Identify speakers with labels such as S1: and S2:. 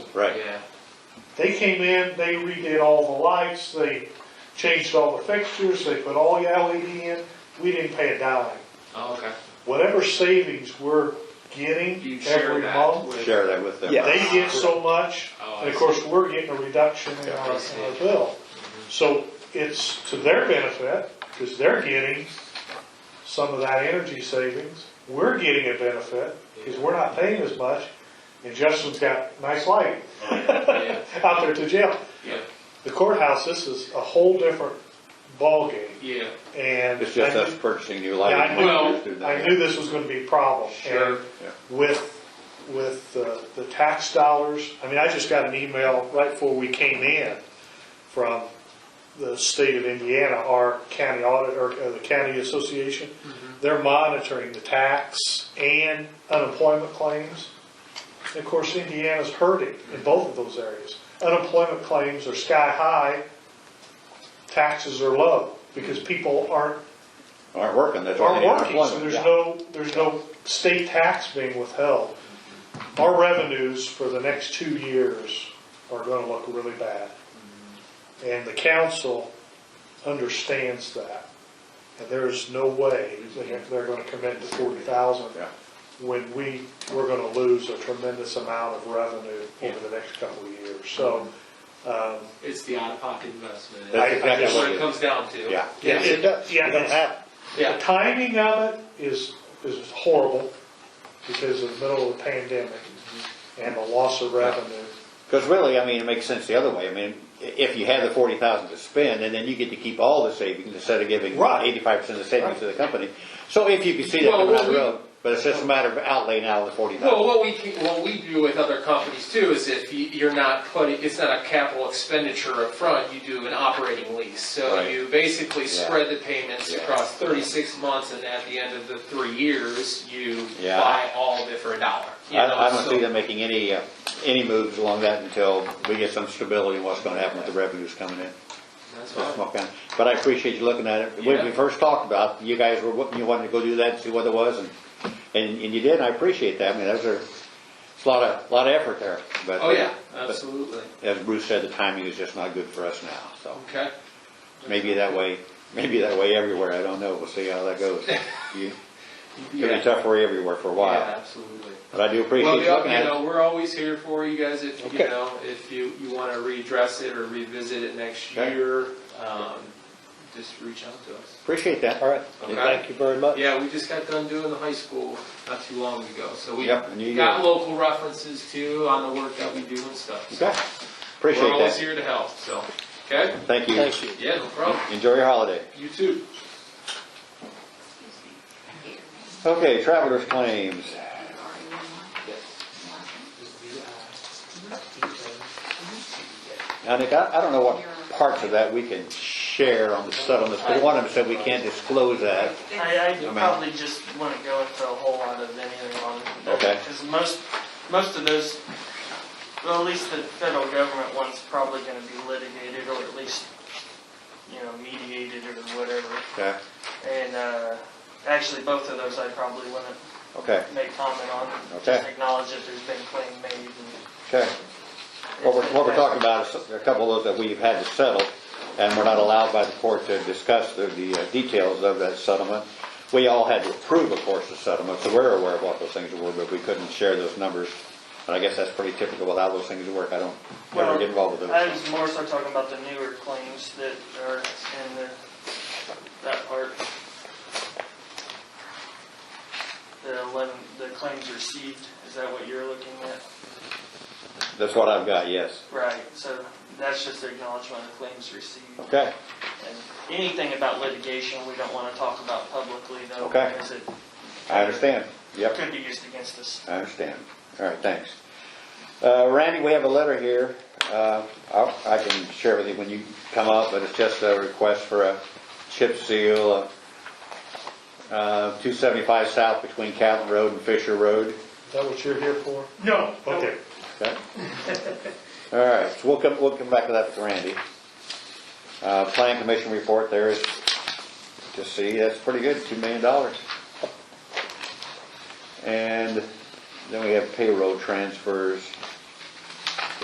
S1: right,
S2: Yeah,
S3: They came in, they redid all the lights, they changed all the fixtures, they put all the LED in, we didn't pay a dime.
S2: oh, okay.
S3: Whatever savings we're
S2: You
S3: getting
S2: share
S3: every
S2: that
S3: month,
S2: with.
S1: share that with them.
S4: Yeah.
S3: they get so much,
S2: Oh, I
S3: and of
S2: see.
S3: course, we're getting a reduction in our,
S2: I see.
S3: in our bill. So it's to their benefit, because they're getting some of that energy savings, we're getting a benefit, because we're not paying as much, and Justin's got nice light
S2: Yeah,
S3: out there to jail.
S2: yeah,
S3: The courthouse, this is a whole different ballgame,
S2: yeah,
S3: and
S1: It's just us
S3: I
S1: purchasing new
S3: Yeah, I
S1: lighting.
S3: knew-
S1: We just do that.
S3: I knew this was gonna be a problem.
S2: Sure.
S3: And
S1: Yeah.
S3: With, with uh, the tax dollars, I mean, I just got an email right before we came in from the state of Indiana, our county audit, or uh, the county association.
S1: Mm-hmm.
S3: They're monitoring the tax and unemployment claims. And Of course, Indiana's hurting in both of those areas. Unemployment claims are sky high, taxes are low, because people aren't
S1: Aren't working, that's why
S3: are
S1: they need
S3: working, so
S1: unemployment.
S3: there's
S1: yeah.
S3: no, there's no state tax being withheld. Our revenues for the next two years are gonna look really bad. And the council understands that. And there's no way that they're gonna commit to forty thousand
S1: Yeah.
S3: when we, we're gonna lose a tremendous amount of revenue over the next couple of years. So, um,
S2: it's the out-of-pocket investment.
S1: That's
S3: I- I
S1: exactly
S2: That's
S3: just-
S1: what
S2: what it
S1: is.
S2: comes down to.
S1: Yeah.
S3: Yeah, it does. Yeah,
S4: You don't
S3: it's-
S4: have
S3: The
S2: Yeah,
S3: timing of it is, is horrible because of the middle of the pandemic and the loss of revenue.
S1: Because really, I mean, it makes sense the other way. I mean, i- if you have the forty thousand to spend, and then you get to keep all the savings instead of giving
S3: Right.
S1: eighty-five percent of the savings to the company. So if you can see that
S2: Well,
S1: coming down
S2: what
S1: the
S2: we-
S1: road, but it's just a matter of outlaying out of the forty
S2: Well,
S1: thousand.
S2: what we, can- what we do with other companies too is if you- you're not putting, it's not a capital expenditure upfront, you do an operating lease. So
S1: Right.
S2: you basically
S1: Yeah.
S2: spread the payments
S1: Yeah.
S2: across 36 months and at the end of the three years, you
S1: Yeah.
S2: buy all of it for a dollar. you
S1: I,
S2: know,
S1: I don't
S2: so-
S1: see them making any, uh, any moves along that until we get some stability in what's gonna happen with the revenues coming in.
S2: That's
S1: That's
S2: fine.
S1: my kind. But I appreciate you looking at it. When we
S2: Yeah.
S1: first talked about, it, you guys were, you wanted to go do that and see what it was, and, and and you did, and I appreciate that. I mean, that was a, it's a lot of, lot of effort there, but.
S2: Oh, yeah,
S1: but-
S2: absolutely.
S1: as Bruce said, the timing is just not good for us now, so
S2: Okay.
S1: maybe that way, maybe that way everywhere, I don't know, we'll see how that goes. You- It'll
S2: Yeah.
S1: be tough for you everywhere for a
S2: Yeah,
S1: while,
S2: absolutely.
S1: but I do
S2: Well,
S1: appreciate you looking
S2: the- you
S1: at
S2: know,
S1: it.
S2: we're always here for you guys if, you
S1: Okay.
S2: know, if you, you want to redress it or revisit it next
S1: Okay.
S2: year, um, just reach out to us.
S1: Appreciate that.
S4: All right,
S2: Okay.
S4: thank you very much.
S2: Yeah, we just got done doing the high school not too long ago, so we
S1: Yep, and you-
S2: got local references too on the work that we do and stuff. So
S1: Okay,
S2: We're
S1: appreciate
S2: always
S1: that.
S2: here to help, so, okay?
S1: Thank you.
S4: Thank you.
S2: Yeah, no problem.
S1: Enjoy your holiday.
S2: You too.
S1: Okay, traveler's claims. Now, Nick, I, I don't know what parts of that we can share on the settlements, but one of them said we can't disclose that.
S5: I, I
S1: mean-
S5: probably just wouldn't go into a whole lot of anything on it.
S1: Okay.
S5: Because most, most of those, well, at least the federal government one's probably gonna be litigated or at least, you know, mediated or whatever.
S1: Okay,
S5: And, uh, actually, both of those I probably wouldn't
S1: okay,
S5: make comment on. Just
S1: Okay.
S5: acknowledge that there's been claim made and.
S1: okay. What we're, what we're talking about is a couple of those that we've had to settle, and we're not allowed by the court to discuss the, the uh, details of that settlement. We all had to approve, of course, the settlement, so we're aware of what those things were, but we couldn't share those numbers. And I guess that's pretty typical with how those things work. I don't ever
S5: Well,
S1: get involved with
S5: I
S1: those.
S5: was more so talking about the newer claims that are in the, that part. The eleven, the claims received, is that what you're looking at?
S1: That's what I've got, yes.
S5: Right, so that's just the acknowledgement of claims received.
S1: Okay,
S5: And anything about litigation, we don't wanna talk about publicly though.
S1: Okay.
S5: Because it
S1: I understand. Yep.
S5: could be used against us.
S1: I understand. All right, thanks. Uh, Randy, we have a letter here. Uh, I'll- I can share with you when you come up, but it's just a request for a chip seal of uh, 275 South between Calvin Road and Fisher Road.
S3: Is that what you're here for?
S5: No.
S3: Okay.
S1: Okay? All right, so we'll come, we'll come back to that with Randy. Uh, Plan Commission report there is, to see, that's pretty good, $2 million. And then we have payroll transfers.